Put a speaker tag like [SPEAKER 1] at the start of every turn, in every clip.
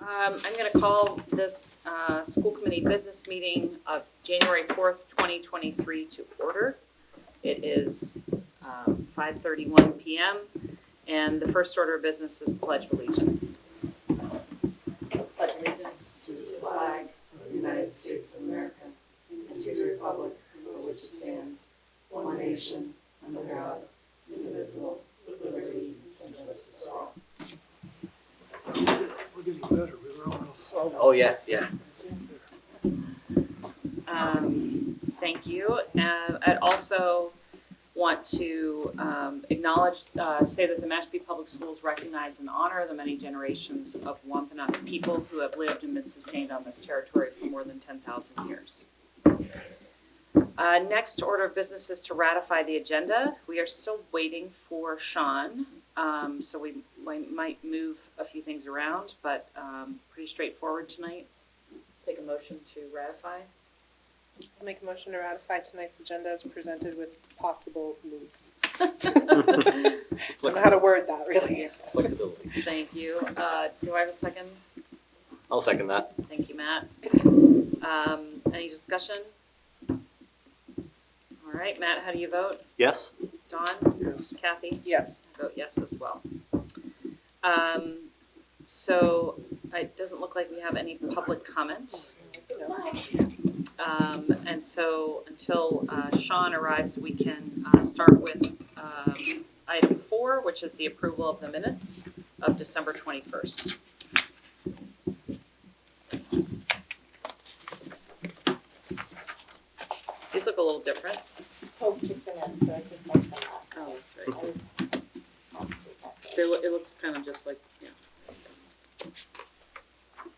[SPEAKER 1] Um, I'm going to call this uh, school committee business meeting of January 4th, 2023 to order. It is um, 5:31 PM, and the first order of business is the pledge of allegiance.
[SPEAKER 2] pledge allegiance to the flag of the United States of America and to the republic for which it stands, one nation, under God, indivisible, with liberty and justice for all.
[SPEAKER 3] We're getting better, we were almost.
[SPEAKER 4] Oh, yeah, yeah.
[SPEAKER 1] Um, Thank you. Uh, I'd also want to um, acknowledge, uh, say that the Mashpee Public Schools recognize and honor the many generations of Wampanoag people who have lived and been sustained on this territory for more than 10,000 years. Uh, Next order of business is to ratify the agenda. We are still waiting for Sean, um, so we we might move a few things around, but um, pretty straightforward tonight. Take a motion to ratify.
[SPEAKER 5] I'll make a motion to ratify tonight's agenda as presented with possible moves. I don't know how to word that, really.
[SPEAKER 4] Flexibility.
[SPEAKER 1] Thank you. Uh, Do I have a second?
[SPEAKER 4] I'll second that.
[SPEAKER 1] Thank you, Matt. Um, Any discussion? All right, Matt, how do you vote?
[SPEAKER 4] Yes?
[SPEAKER 1] Don?
[SPEAKER 3] Yes,
[SPEAKER 1] Kathy?
[SPEAKER 5] Yes,
[SPEAKER 1] I vote yes as well. Um, So it doesn't look like we have any public comment.
[SPEAKER 5] no,
[SPEAKER 1] Um, And so until uh, Sean arrives, we can uh, start with um, item four, which is the approval of the minutes of December 21st. These look a little different.
[SPEAKER 6] Hope took them in, so I just left them out.
[SPEAKER 1] Oh, that's right.
[SPEAKER 6] I was- I'll see that
[SPEAKER 1] They loo- It looks kind of just like, yeah. Do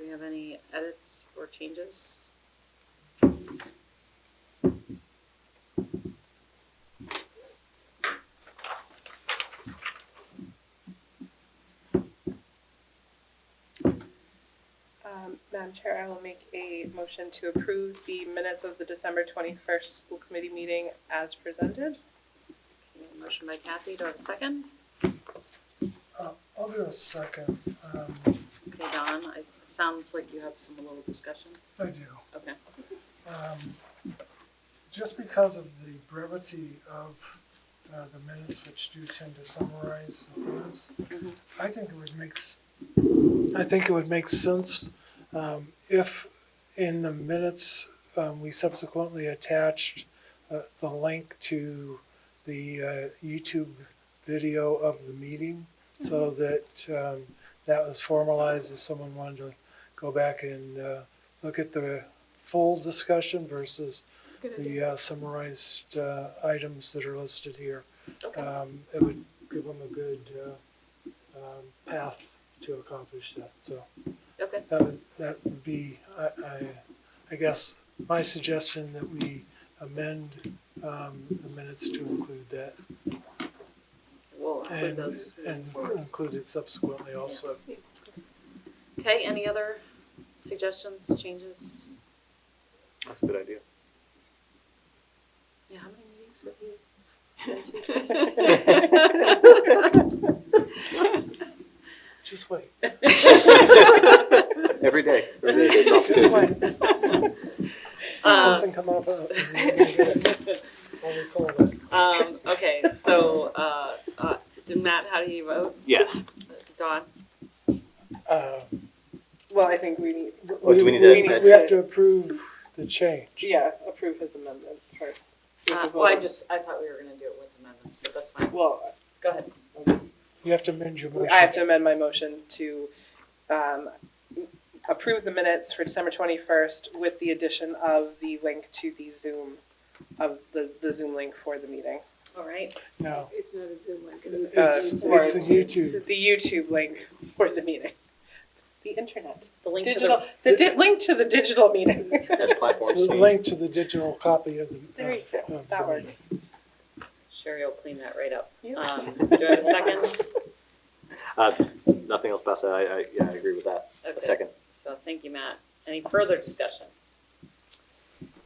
[SPEAKER 1] we have any edits or changes?
[SPEAKER 5] Um, Madam Chair, I will make a motion to approve the minutes of the December 21st school committee meeting as presented.
[SPEAKER 1] Okay, Motion by Kathy, do I have a second?
[SPEAKER 3] Uh, I'll do a second, um,
[SPEAKER 1] Okay, Don, I- it sounds like you have some little discussion.
[SPEAKER 3] I do.
[SPEAKER 1] Okay.
[SPEAKER 3] Um, Just because of the brevity of uh, the minutes, which do tend to summarize the things,
[SPEAKER 1] Mhm.
[SPEAKER 3] I think it would make, s- I think it would make sense um, if in the minutes, um, we subsequently attached uh, the link to the uh, YouTube video of the meeting, so that um, that was formalized if someone wanted to go back and uh, look at the full discussion versus the uh, summarized uh, items that are listed here. Um, It would give them a good uh, um, path to accomplish that, so
[SPEAKER 1] Okay,
[SPEAKER 3] that would, that would be, I, I, I guess, my suggestion that we amend um, the minutes to include that.
[SPEAKER 1] we'll include
[SPEAKER 3] And,
[SPEAKER 1] those.
[SPEAKER 3] and include it subsequently also.
[SPEAKER 1] Okay, any other suggestions, changes?
[SPEAKER 4] That's a good idea.
[SPEAKER 1] Yeah, how many meetings have you been
[SPEAKER 3] Just wait.
[SPEAKER 1] to?
[SPEAKER 4] Every day. Every day. there's
[SPEAKER 3] Just
[SPEAKER 4] opportunity.
[SPEAKER 3] wait. If
[SPEAKER 1] Uh,
[SPEAKER 3] something come up, uh, I'll recall that.
[SPEAKER 1] Um, okay, so, uh, uh, did Matt, how do you vote?
[SPEAKER 4] Yes.
[SPEAKER 1] Don?
[SPEAKER 3] Uh,
[SPEAKER 5] Well, I think we need,
[SPEAKER 4] Or do we need
[SPEAKER 5] We
[SPEAKER 4] to?
[SPEAKER 5] need
[SPEAKER 3] We
[SPEAKER 4] that's-
[SPEAKER 3] have to approve the change.
[SPEAKER 5] yeah, approve his amendment first. We
[SPEAKER 1] Uh,
[SPEAKER 5] can vote
[SPEAKER 1] well, I
[SPEAKER 5] on-
[SPEAKER 1] just, I thought we were gonna do it with amendments, but that's fine.
[SPEAKER 5] Well,
[SPEAKER 1] Go ahead.
[SPEAKER 3] You have to amend your motion.
[SPEAKER 5] I have to amend my motion to um, approve the minutes for December 21st with the addition of the link to the Zoom, of the the Zoom link for the meeting.
[SPEAKER 1] All right,
[SPEAKER 3] No,
[SPEAKER 2] It's not a Zoom link.
[SPEAKER 5] uh,
[SPEAKER 3] it's, it's
[SPEAKER 5] or-
[SPEAKER 3] a YouTube.
[SPEAKER 5] The YouTube link for the meeting. The internet.
[SPEAKER 1] the link to
[SPEAKER 5] Digital,
[SPEAKER 1] the,
[SPEAKER 5] the di- link to the digital meeting.
[SPEAKER 4] As platforms
[SPEAKER 3] It's a
[SPEAKER 4] change.
[SPEAKER 3] link to the digital copy of the.
[SPEAKER 5] There you
[SPEAKER 3] of-
[SPEAKER 5] go,
[SPEAKER 3] of
[SPEAKER 5] that
[SPEAKER 3] the-
[SPEAKER 5] works.
[SPEAKER 1] Sherry will clean that right up.
[SPEAKER 5] Yeah.
[SPEAKER 1] Um, do I have a second?
[SPEAKER 4] Uh, nothing else past that. I, I, yeah, I agree with that.
[SPEAKER 1] Okay.
[SPEAKER 4] A second.
[SPEAKER 1] So, thank you, Matt. Any further discussion?